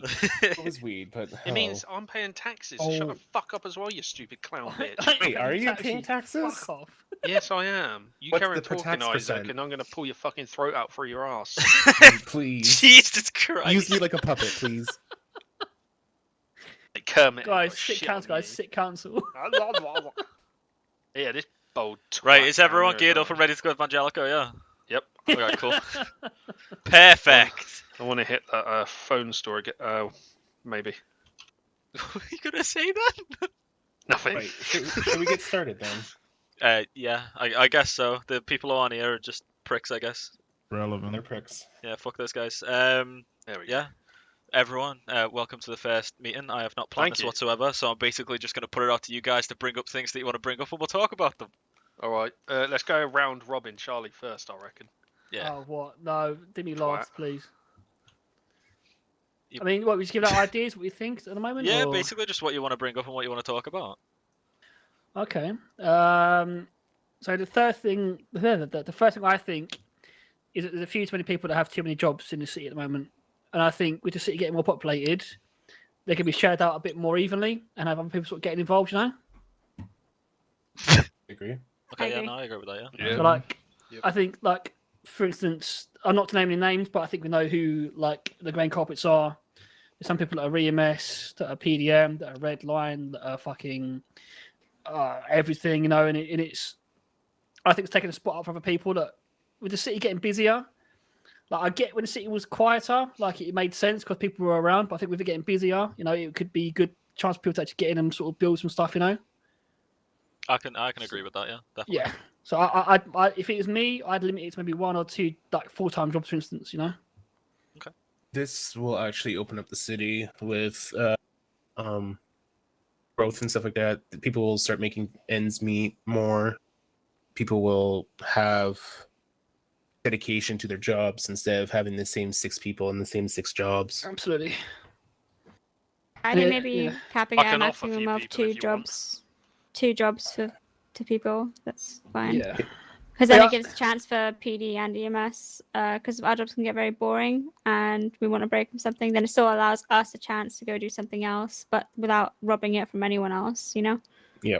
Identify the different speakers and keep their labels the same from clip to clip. Speaker 1: It was weird, but
Speaker 2: It
Speaker 1: oh.
Speaker 2: means I'm paying taxes. so Shut
Speaker 1: Oh.
Speaker 2: the fuck up as well, you stupid clown bitch.
Speaker 1: Wait, are you paying taxes?
Speaker 3: Fuck off.
Speaker 2: yes, I am. You
Speaker 4: What's
Speaker 2: carry on
Speaker 4: the per tax
Speaker 2: talking, Isaac,
Speaker 4: percent?
Speaker 2: and I'm going to pull your fucking throat out through your ass.
Speaker 1: Please
Speaker 5: Jesus Christ.
Speaker 1: use me like a puppet, please.
Speaker 2: like Kermit. and
Speaker 3: Guys,
Speaker 2: put
Speaker 3: sit
Speaker 2: shit on
Speaker 3: council, guys,
Speaker 2: you.
Speaker 3: sit council.
Speaker 2: yeah, this bold.
Speaker 5: Right,
Speaker 2: twat
Speaker 5: is
Speaker 2: down
Speaker 5: everyone
Speaker 2: there,
Speaker 5: geared up
Speaker 2: isn't
Speaker 5: and ready to go Evangelico? Yeah.
Speaker 2: it? Yep.
Speaker 5: Okay, cool. Perfect.
Speaker 2: I want to hit that uh, phone store. aga- Uh, maybe
Speaker 5: Were you gonna say that?
Speaker 2: nothing.
Speaker 1: Wait, should, should we get started then?
Speaker 5: Uh, yeah, I, I guess so. The people who aren't here are just pricks, I guess.
Speaker 1: They're
Speaker 6: Relevant.
Speaker 1: pricks.
Speaker 5: Yeah, fuck those guys. Um,
Speaker 2: There we go.
Speaker 5: yeah. Everyone, uh, welcome to the first meeting. I have not planned
Speaker 2: Thank
Speaker 5: this
Speaker 2: you.
Speaker 5: whatsoever, so I'm basically just going to put it out to you guys to bring up things that you want to bring up, and we'll talk about them.
Speaker 2: All right. Uh, let's go round robin, Charlie first. I reckon.
Speaker 5: Yeah.
Speaker 3: Oh, what? No, give me last, please.
Speaker 5: You-
Speaker 3: I mean, what, we just give out ideas, what we think at the moment?
Speaker 5: Yeah,
Speaker 3: or-
Speaker 5: basically just what you want to bring up and what you want to talk about.
Speaker 3: Okay. Um, so the third thing, the, third- the, the first thing I think is that there's a few too many people that have too many jobs in the city at the moment, and I think with the city getting more populated, they can be shared out a bit more evenly and have other people sort of getting involved. You know,
Speaker 1: Agree.
Speaker 5: Okay, yeah,
Speaker 7: agree.
Speaker 5: no, I agree with that, yeah.
Speaker 6: Yeah.
Speaker 3: so like
Speaker 2: Yep.
Speaker 3: I think like for instance, I'm not to name any names, but I think we know who like the grand carpets are. There's some people that are EMS, that are PDM, that are Red Line, that are fucking uh, everything, you know, and, it, and it's I think it's taking a spot up for other people that with the city getting busier. Like I get when the city was quieter, like it made sense because people were around. But I think with it getting busier, you know, it could be good chance for people to actually get in and sort of build some stuff, you know.
Speaker 5: I can I can agree with that, yeah. Definitely.
Speaker 3: Yeah. So I, I, I'd- I, if it was me, I'd limit it to maybe one or two like full time jobs, for instance. You know.
Speaker 1: This will actually open up the city with uh, um, growth and stuff like that. The People will start making ends meet more. People will have dedication to their jobs instead of having the same six people and the same six jobs.
Speaker 3: Absolutely.
Speaker 7: I think
Speaker 3: Yeah,
Speaker 7: maybe
Speaker 3: yeah.
Speaker 7: capping
Speaker 2: I
Speaker 7: at a
Speaker 2: can offer a few
Speaker 7: maximum of
Speaker 2: people if
Speaker 7: two
Speaker 2: you want.
Speaker 7: jobs, two jobs for to people. That's fine.
Speaker 3: Yeah.
Speaker 7: Because then
Speaker 3: Yeah.
Speaker 7: it gives a chance for PD and E EMS. Because uh, our jobs can get very boring, and we want to break from something. Then it still allows us a chance to go do something else, but without robbing it from anyone else. You know.
Speaker 3: Yeah,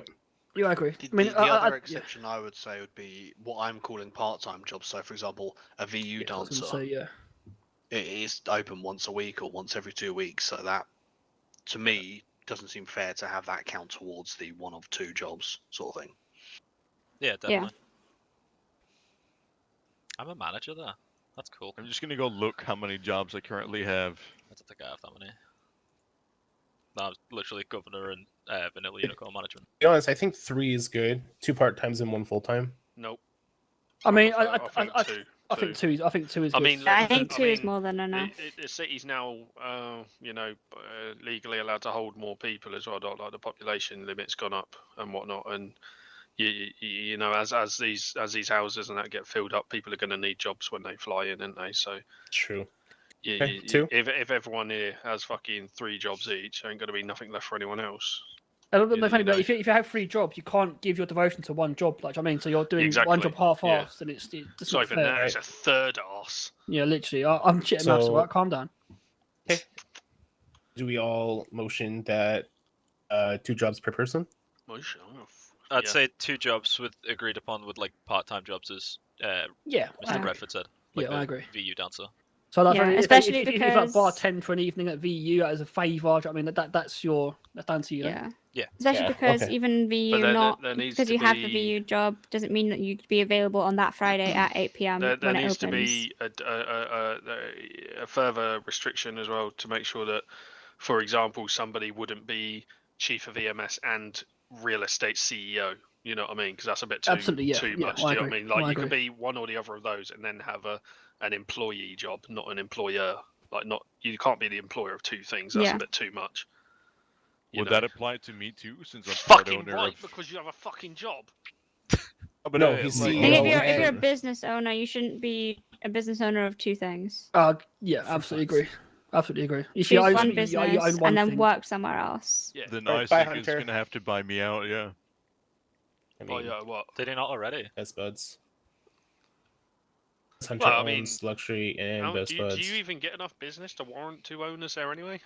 Speaker 3: I agree.
Speaker 8: The,
Speaker 3: I mean,
Speaker 8: the, the
Speaker 3: I, I- I- yeah,
Speaker 8: other exception I would say would be what I'm calling part-time jobs. So, for example, a VU
Speaker 3: I was
Speaker 8: dancer.
Speaker 3: gonna say, yeah.
Speaker 8: It is open once a week or once every two weeks. So that, to me, doesn't seem fair to have that count towards the one of two jobs sort of thing.
Speaker 5: Yeah, definitely. I'm a manager there. That's cool. I
Speaker 6: I'm just gonna go look how many jobs I currently have.
Speaker 5: don't think I have that many. No, I'm literally governor and uh, vanilla unicorn management.
Speaker 1: To be honest, I think three is good. Two part times and one full time.
Speaker 2: Nope.
Speaker 3: I mean, I,
Speaker 2: I,
Speaker 3: I, I, I,
Speaker 2: two.
Speaker 3: I think two is. I think two is.
Speaker 2: I
Speaker 3: good.
Speaker 2: mean,
Speaker 7: Yeah, I
Speaker 2: Look,
Speaker 7: think
Speaker 2: I
Speaker 7: two is
Speaker 2: mean,
Speaker 7: more than enough.
Speaker 2: It, it, the city's now, uh, you know, uh, legally allowed to hold more people as well. Like like the population limit's gone up and whatnot, and you, you, you know, as as these as these houses and that get filled up, people are going to need jobs when they fly in, aren't they? So
Speaker 1: True.
Speaker 2: you,
Speaker 1: Okay,
Speaker 2: you- you-
Speaker 1: two.
Speaker 2: if if everyone here has fucking three jobs each, ain't going to be nothing left for anyone else.
Speaker 3: I don't know
Speaker 2: you
Speaker 3: if anybody-
Speaker 2: know.
Speaker 3: if you, if you have three jobs, you can't give your devotion to one job. Like I mean, so you're doing
Speaker 2: Exactly,
Speaker 3: one job half-assed, and it's it
Speaker 2: It's
Speaker 3: doesn't
Speaker 2: not
Speaker 3: look
Speaker 2: even
Speaker 3: fair.
Speaker 2: that; it's a third arse.
Speaker 3: Yeah, literally. I, I'm shitting so...
Speaker 1: So-
Speaker 3: right? Calm down.
Speaker 1: Do we all motion that uh, two jobs per person?
Speaker 2: Motion, I don't know if-
Speaker 5: I'd
Speaker 2: Yeah.
Speaker 5: say two jobs with agreed upon with like part-time jobs as uh,
Speaker 3: Yeah.
Speaker 5: Mr.
Speaker 3: I-
Speaker 5: Bradford said.
Speaker 3: Yeah,
Speaker 5: Like
Speaker 3: I
Speaker 5: the
Speaker 3: agree.
Speaker 5: VU dancer.
Speaker 3: So like,
Speaker 7: Yeah,
Speaker 3: I mean, if-
Speaker 7: especially
Speaker 3: if, if, if, you
Speaker 7: because-
Speaker 3: bartend for an evening at VU as a favour, do you know what I mean, that, that that's your that's down to you.
Speaker 7: Yeah.
Speaker 5: Yeah.
Speaker 7: Especially
Speaker 1: Yeah,
Speaker 7: because
Speaker 1: okay.
Speaker 7: even VU
Speaker 2: there- there-
Speaker 7: not
Speaker 2: there needs
Speaker 7: because
Speaker 2: to
Speaker 7: you have the
Speaker 2: be-
Speaker 7: VU job doesn't mean that you'd be available on that Friday at 8
Speaker 3: Um,
Speaker 7: p.m.
Speaker 2: There, there
Speaker 7: when
Speaker 2: needs
Speaker 7: it opens.
Speaker 2: to be a, d- a- a- a- a further restriction as well to make sure that, for example, somebody wouldn't be chief of EMS and real estate CEO. You know what I mean? Because that's a bit too
Speaker 3: Absolutely, yeah,
Speaker 2: too
Speaker 3: yeah,
Speaker 2: much. do
Speaker 3: I
Speaker 2: you know what I
Speaker 3: agree,
Speaker 2: mean? Like
Speaker 3: I
Speaker 2: you could be one or the other of those, and then have a an employee job, not an employer. Like not you can't be the employer of two things. That's
Speaker 7: Yeah.
Speaker 2: a bit too much. You
Speaker 6: Would
Speaker 2: know?
Speaker 6: that apply to me too, since I'm part
Speaker 2: fucking
Speaker 6: owner
Speaker 2: right
Speaker 6: of?
Speaker 2: because you have a fucking job.
Speaker 6: Oh, but
Speaker 1: No,
Speaker 6: I-
Speaker 1: he's
Speaker 6: like-
Speaker 1: CEO.
Speaker 7: I think
Speaker 1: No,
Speaker 7: if you're if you're a
Speaker 1: and-
Speaker 7: business owner, you shouldn't be a business owner of two things.
Speaker 3: Uh, yeah,
Speaker 1: For
Speaker 3: absolutely
Speaker 1: fuck's
Speaker 3: agree. Absolutely agree. You
Speaker 7: Choose
Speaker 3: see, I
Speaker 7: one
Speaker 3: you-
Speaker 7: business
Speaker 3: you- you own one
Speaker 7: and then
Speaker 3: thing.
Speaker 7: work somewhere else.
Speaker 2: Yeah.
Speaker 6: Then
Speaker 1: Or
Speaker 6: Isaac
Speaker 1: buy
Speaker 6: is
Speaker 1: Hunter.
Speaker 6: gonna have to buy me out. Yeah.
Speaker 1: I
Speaker 2: Oh
Speaker 1: mean,
Speaker 2: yeah. What?
Speaker 5: Did he not already?
Speaker 1: Best Buds. Hunter
Speaker 2: Well, I mean-
Speaker 1: owns luxury and
Speaker 2: How-
Speaker 1: Best
Speaker 2: do, you,
Speaker 1: Buds.
Speaker 2: do you even get enough business to warrant two owners there anyway?